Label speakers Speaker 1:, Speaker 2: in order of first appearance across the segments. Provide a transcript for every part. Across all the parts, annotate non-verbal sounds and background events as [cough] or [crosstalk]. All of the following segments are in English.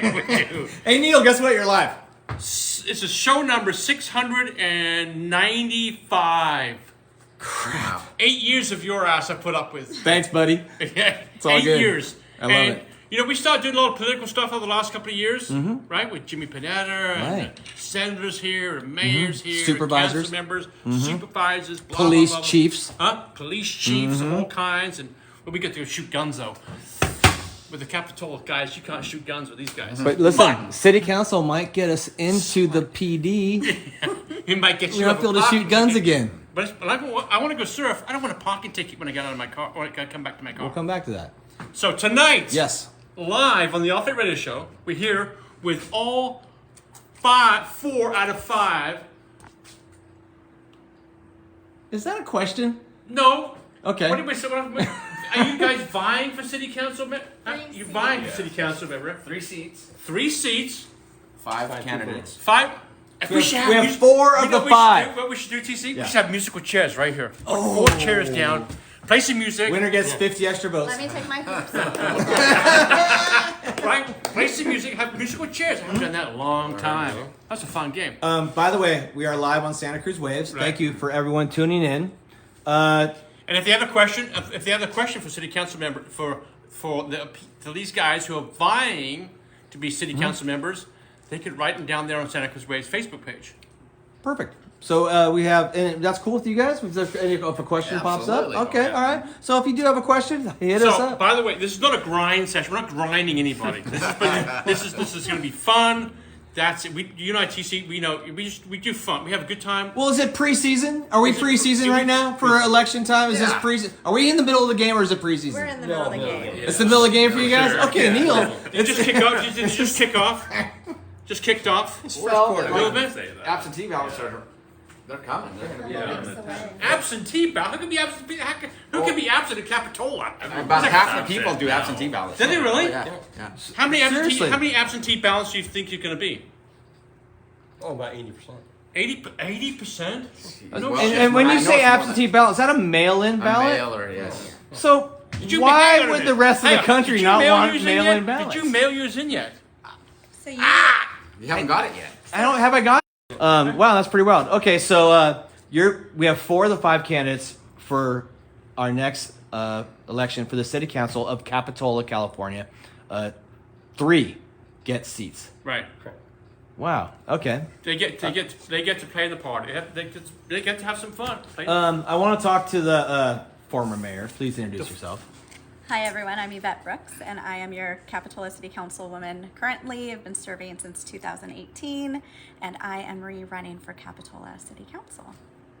Speaker 1: we do.
Speaker 2: Hey Neil, guess what? You're live.
Speaker 1: S- This is show number 695.
Speaker 2: Crap.
Speaker 1: Eight years of your ass I put up with. [laughs]
Speaker 2: Thanks, buddy.
Speaker 1: Yeah,
Speaker 2: all
Speaker 1: Eight
Speaker 2: good.
Speaker 1: years.
Speaker 2: I love
Speaker 1: and,
Speaker 2: it.
Speaker 1: You know, we started doing a lot of political stuff over the last couple of years, right? With Jimmy Panetta and
Speaker 2: Mm-hmm. Right. Mm-hmm.
Speaker 1: senators here, and mayors here, and
Speaker 2: Supervisors. Mm-hmm.
Speaker 1: council members, supervisors, blah, blah,
Speaker 2: Police
Speaker 1: blah, blah.
Speaker 2: chiefs. Mm-hmm.
Speaker 1: huh? Police chiefs of all kinds, and well, we get to go shoot guns though. With the Capitol guys, you can't shoot guns with these guys.
Speaker 2: But listen, city council might get us into the PD.
Speaker 1: It might get
Speaker 2: We
Speaker 1: you
Speaker 2: won't
Speaker 1: up
Speaker 2: be
Speaker 1: a
Speaker 2: able to shoot
Speaker 1: parking
Speaker 2: guns
Speaker 1: ticket.
Speaker 2: again.
Speaker 1: But, it's, but I, wa- I want to go surf. I don't want a parking ticket when I get out of my car. When I come back to my car.
Speaker 2: We'll come back to that.
Speaker 1: So tonight,
Speaker 2: Yes.
Speaker 1: live on the Off It Radio Show, we're here with all five, four out of five.
Speaker 2: Is that a question?
Speaker 1: No.
Speaker 2: Okay.
Speaker 1: What did we say? What, are you guys vying for city council member?
Speaker 3: Three
Speaker 1: You vying for
Speaker 4: seats.
Speaker 1: city council member?
Speaker 4: Three seats,
Speaker 1: Three seats,
Speaker 4: five, candidates.
Speaker 1: five. If
Speaker 2: We have-
Speaker 1: should
Speaker 2: we have
Speaker 1: mus-
Speaker 2: four of
Speaker 1: you know what we
Speaker 2: the
Speaker 1: should
Speaker 2: five.
Speaker 1: do- what we should do, TC?
Speaker 2: Yeah. Oh.
Speaker 1: We should have musical chairs right here. Put Four chairs down. Play some music.
Speaker 2: Winner gets 50 extra votes.
Speaker 3: Let me take my hoops
Speaker 2: [laughs]
Speaker 3: off.
Speaker 1: Right? Play some music, have musical chairs. I haven't done that in a long time. That's a fun game.
Speaker 2: Um, by the way, we are live on Santa Cruz Waves.
Speaker 1: Right.
Speaker 2: Thank you for everyone tuning in. Uh,
Speaker 1: And if they have a question, if, if they have a question for city council member, for for the for these guys who are vying to be city council members, they could write them down there on Santa Cruz Waves Facebook page.
Speaker 2: perfect. So uh, we have, and that's cool with you guys. If, there's any- if a question
Speaker 4: Yeah,
Speaker 2: pops
Speaker 4: absolutely.
Speaker 2: up, okay,
Speaker 4: Yeah.
Speaker 2: all right. So if you do have a question, hit us
Speaker 1: so,
Speaker 2: up.
Speaker 1: by the way, this is not a grind session. We're not grinding [laughs] anybody. This is this is, this is going to be fun. That's it. We, you know, at TC, we know we just we do fun. We have a good time.
Speaker 2: Well, is it preseason? Are we
Speaker 1: Is it-
Speaker 2: preseason
Speaker 1: do we-
Speaker 2: right now for election time? Is
Speaker 4: Yeah.
Speaker 2: this preseason? Are we in the middle of the game or is it preseason?
Speaker 3: We're in the middle of the game.
Speaker 2: It's the middle of the game for you guys.
Speaker 1: Sure.
Speaker 2: Okay, Neil.
Speaker 1: Did you just kick off? Did you just kick off? Just kicked off.
Speaker 4: Well,
Speaker 1: A little bit.
Speaker 4: absentee ballots are, they're coming. They're gonna be
Speaker 3: Yeah.
Speaker 4: out.
Speaker 3: It's the wedding.
Speaker 1: Absentee ballot? Who can be absent? be- how can- Who can be absent in Capitola?
Speaker 4: About half the people do absentee ballots.
Speaker 1: Do they really?
Speaker 4: Yeah. yeah.
Speaker 1: How many absentee?
Speaker 2: Seriously.
Speaker 1: How many absentee ballots do you think you're going to be?
Speaker 5: Oh, about eighty percent.
Speaker 1: 80 percent. No
Speaker 4: Well,
Speaker 2: And,
Speaker 1: shit.
Speaker 2: and when
Speaker 4: I
Speaker 2: you
Speaker 4: know
Speaker 2: say
Speaker 4: it's more than-
Speaker 2: absentee ballot, is that a mail-in
Speaker 4: A
Speaker 2: ballot?
Speaker 4: mailer, yes.
Speaker 2: So
Speaker 1: Did you- hang on
Speaker 2: why
Speaker 1: a
Speaker 2: would
Speaker 1: minute.
Speaker 2: the rest of
Speaker 1: Hang
Speaker 2: the
Speaker 1: on. Did
Speaker 2: country
Speaker 1: you
Speaker 2: not
Speaker 1: mail
Speaker 2: want
Speaker 1: yours in
Speaker 2: mail-in
Speaker 1: yet?
Speaker 2: ballots?
Speaker 1: Did you mail yours in yet?
Speaker 3: So you,
Speaker 4: You haven't got it yet.
Speaker 2: I don't have I got. Um, wow, that's pretty wild. Okay, so uh, you're we have four of the five candidates for our next uh, election for the city council of Capitola, California. Uh, three get seats.
Speaker 1: Right.
Speaker 2: Wow. Okay.
Speaker 1: They get. They get. They get to play the party. They, have, they, get, they get to have some fun. Play-
Speaker 2: Um, I want to talk to the uh, former mayor. Please introduce yourself.
Speaker 3: Hi everyone, I'm Yvette Brooks and I am your Capitola City Councilwoman currently. I've been serving since 2018 and I am re-running for Capitola City Council.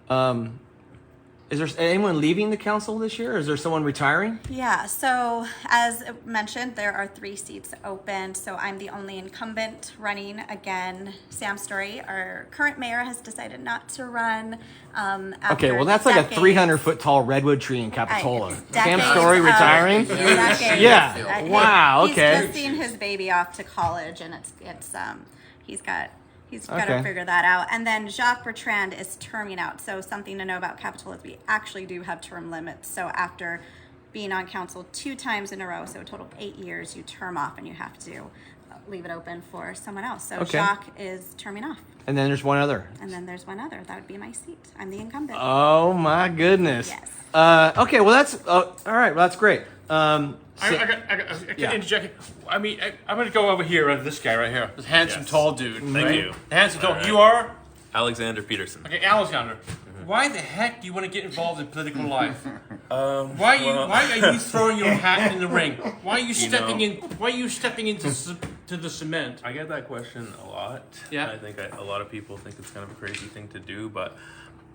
Speaker 2: Um, is there anyone leaving the council this year? Is there someone retiring?
Speaker 3: Yeah, so as mentioned, there are three seats open. So I'm the only incumbent running again. Sam Story, our current mayor, has decided not to run. Um, after
Speaker 2: Okay, well that's like a
Speaker 3: decades-
Speaker 2: 300 foot tall redwood tree in
Speaker 3: I-
Speaker 2: Capitola. Sam
Speaker 3: decades
Speaker 2: Story
Speaker 3: of-
Speaker 2: retiring.
Speaker 3: decades
Speaker 2: Yeah.
Speaker 3: of- I-
Speaker 2: Wow, okay.
Speaker 3: Uh, He's kissing his baby off to college, and it's it's um he's got. He's got
Speaker 2: Okay.
Speaker 3: to figure that out. And then Jacques Bertrand is terming out. So something to know about Capitol is we actually do have term limits. So after being on council two times in a row, so a total of eight years, you term off and you have to uh, leave it open for someone else. So
Speaker 2: Okay.
Speaker 3: Jacques is terming off.
Speaker 2: And then there's one other.
Speaker 3: And then there's one other. That would be my seat. I'm the incumbent.
Speaker 2: Oh my goodness.
Speaker 3: Yes.
Speaker 2: Uh, okay, well that's uh, all right. Well, that's great. Um,
Speaker 1: I,
Speaker 2: so-
Speaker 1: I, got- I, got- I can
Speaker 2: Yeah.
Speaker 1: interject. I mean, I, I'm going to go over here over this guy right here. This handsome,
Speaker 6: Yes.
Speaker 1: tall dude.
Speaker 6: Thank
Speaker 1: right?
Speaker 6: you.
Speaker 1: The handsome, tall.
Speaker 6: All right.
Speaker 1: You are.
Speaker 6: Alexander Peterson.
Speaker 1: Okay, Alexander, why the heck do you want to get involved in political life? why are you
Speaker 6: well-
Speaker 1: Why are you throwing your hat in the ring? Why are you stepping
Speaker 6: know-
Speaker 1: in? Why are you stepping into c- to the cement?
Speaker 6: I get that question a lot.
Speaker 1: Yeah.
Speaker 6: I think I, a lot of people think it's kind of a crazy thing to do, but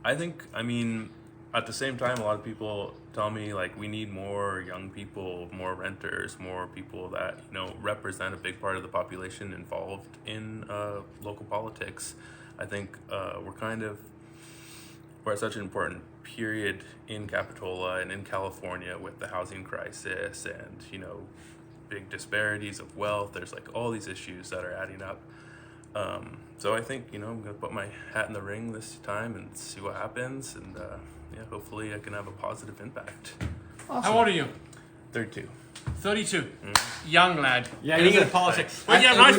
Speaker 6: I think, I mean, at the same time, a lot of people tell me, like, we need more young people, more renters, more people that, you know, represent a big part of the population involved in uh, local politics. I think uh, we're kind of we're at such an important period in Capitola and in California with the housing crisis and you know big disparities of wealth. There's like all these issues that are adding up. Um, so I think you know I'm gonna put my hat in the ring this time and see what happens, and uh, yeah, hopefully I can have a positive impact.
Speaker 1: How old are you?
Speaker 6: Thirty-two.
Speaker 1: Thirty-two. Young lad.
Speaker 2: Yeah,
Speaker 1: and you
Speaker 2: he was
Speaker 1: get
Speaker 2: a-
Speaker 1: politics.
Speaker 2: I-
Speaker 1: Well, yeah,
Speaker 2: I
Speaker 1: nice